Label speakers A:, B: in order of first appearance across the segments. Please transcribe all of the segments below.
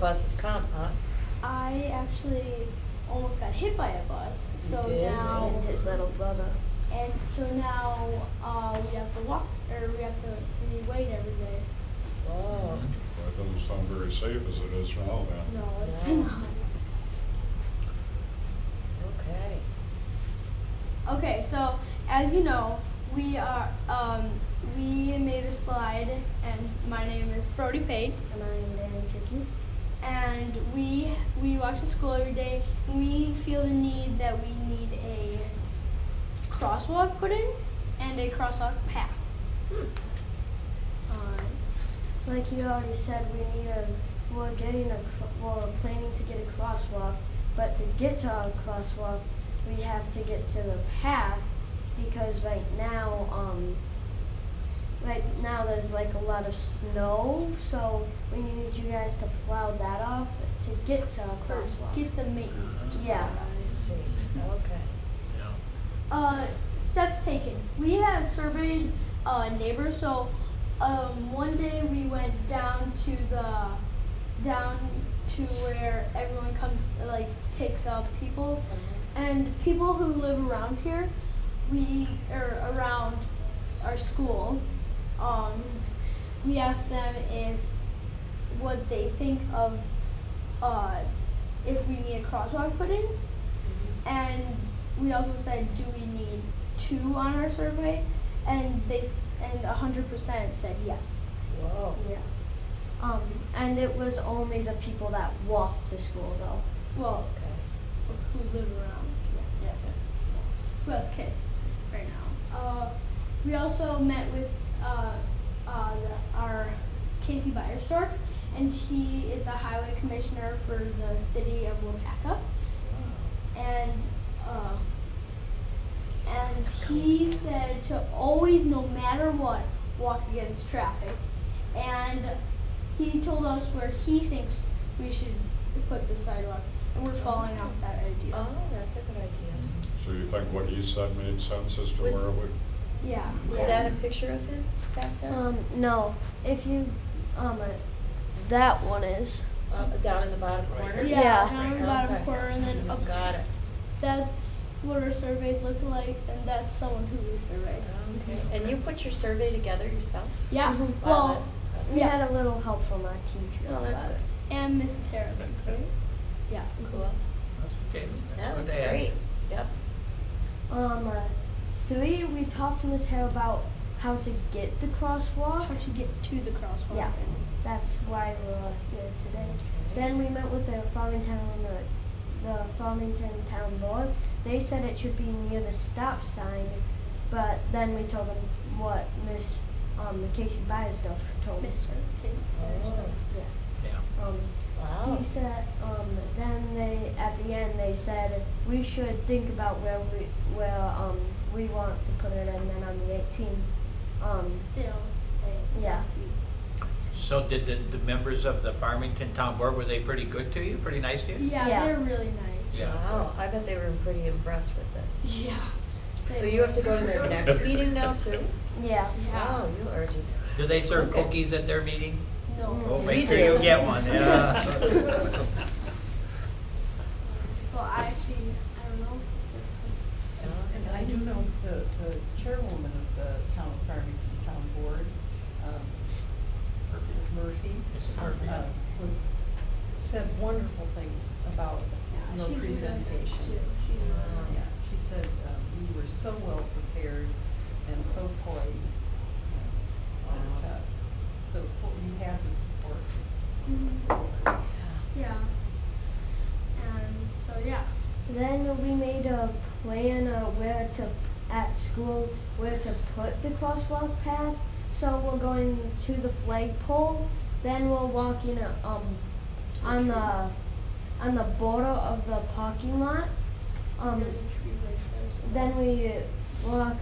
A: buses come, huh?
B: I actually almost got hit by a bus.
A: You
B: So
A: did?
B: now
C: and his little brother.
B: and so now uh, we have to walk or we have to we wait every day.
A: Whoa.
D: Well, it doesn't sound very safe as it is now then.
B: No, it's
A: Yeah.
B: not.
A: Okay.
B: Okay, so as you know, we are um, we made a slide and my name is Frody Pate.
C: And I'm very tricky.
B: and we we walk to school every day and we feel the need that we need a crosswalk put in and a crosswalk path.
C: Hmm.
B: Um,
C: Like you already said, we need a, we're getting a, cro- well, we're planning to get a crosswalk, but to get to our crosswalk, we have to get to the path because right now, um, right now there's like a lot of snow, so we need you guys to plow that off to get to our
B: or
C: crosswalk.
B: get the maintenance.
C: yeah.
A: I see. Okay.
B: Uh, steps taken. We have surveyed uh, neighbors. So um, one day we went down to the down to where everyone comes like picks up people, and people who live around here, we or around our school, um, we asked them if what they think of uh, if we need a crosswalk put in. And we also said, do we need two on our survey? And they s- and hundred percent said yes.
A: Whoa.
C: Yeah. Um, and it was only the people that walked to school though.
B: Well,
A: Okay.
B: who live around? Yeah, Who has kids right now? Uh, we also met with uh, uh, the, our Casey Byersdorf, and he is a highway commissioner for the city of Wapaka. and uh, and he said to always, no matter what, walk against traffic. And he told us where he thinks we should put the sidewalk, and we're falling off that idea.
A: Oh, that's a good idea.
D: So you think what he said made sense as to
A: Was-
D: where it would?
B: Yeah.
A: Was that a picture of him back there?
C: Um, no. If you, um, uh, that one is.
A: Uh, down in the bottom corner?
B: Yeah,
C: Yeah.
B: down in the bottom
A: Okay.
B: corner, and then up.
A: Got it.
B: That's what our survey looked like, and that's someone who we surveyed.
A: Okay. And you put your survey together yourself?
B: Yeah.
C: Mhm.
A: Wow,
B: Well,
A: that's impressive.
C: We
B: Yeah.
C: had a little help from our teacher.
A: Oh, that's
C: but-
A: good.
B: and Mrs. Harris.
A: Great.
B: Yeah.
A: Cool.
E: That's okay.
A: Yeah,
E: That's what
A: That's
E: they ask.
A: great. Yep.
C: Um, uh, three. We talked to Miss Hare about how to get the
B: How
C: crosswalk.
B: to get to the crosswalk.
C: Yeah. That's why we're here today. Then we met with the Farmington, the, the Farmington Town Board. They said it should be near the stop sign, but then we told them what Miss, um, Casey Byersdorf told us.
B: Mr. Casey.
A: Oh,
C: Yeah.
E: Yeah.
C: Um,
A: Wow.
C: He said, um, then they, at the end, they said, we should think about where we, where, um, we want to put it, and then on the eighteenth, um, Yeah.
E: So did the, the members of the Farmington Town Board, were they pretty good to you, pretty nice to you?
B: Yeah,
C: Yeah.
B: they're really nice.
E: Yeah.
A: Wow, I bet they were pretty impressed with this.
B: Yeah.
A: So you have to go to their next meeting now too?
C: yeah.
B: Yeah.
A: Wow, you are just.
E: Do they serve
A: Okay.
E: cookies at their meeting?
B: No.
E: Oh,
A: We
E: make sure you
A: do.
E: get one, yeah.
B: Well, I actually, I don't know. if
F: And and I do know the, the chairwoman of the town of Farmington Town Board, um, Mrs. Murphy,
E: Mrs. Murphy.
F: uh, was, said wonderful things
B: it's
F: about
B: a-
F: your
B: she did.
F: presentation.
B: She did.
A: Wow.
F: Yeah, she said, um, you were so well prepared and so poised. And,
A: Wow.
F: uh, the, full- you have the support.
B: Mhm.
A: Oh,
B: Yeah. And so, yeah.
C: Then we made a plan of where to, at school, where to put the crosswalk path. So we're going to the flagpole, then we're walking, uh, um, on the, on the border of the parking lot. Um,
B: There's a tree right there, so-
C: Then we walk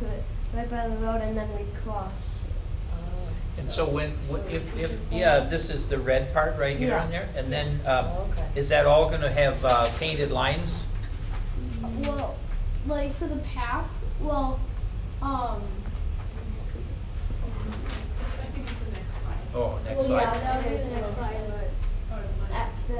C: right by the road and then we cross.
A: Oh,
E: And so when,
A: So
E: wh- if,
A: this
E: if,
A: is the-
E: yeah, this is the red part right here
C: Yeah.
E: on there? And then, um,
A: Okay.
E: is that all gonna have uh, painted lines?
B: Well, like for the path, well, um,
E: Oh, next
B: well, yeah,
E: slide. Oh,
B: that would be the next slide.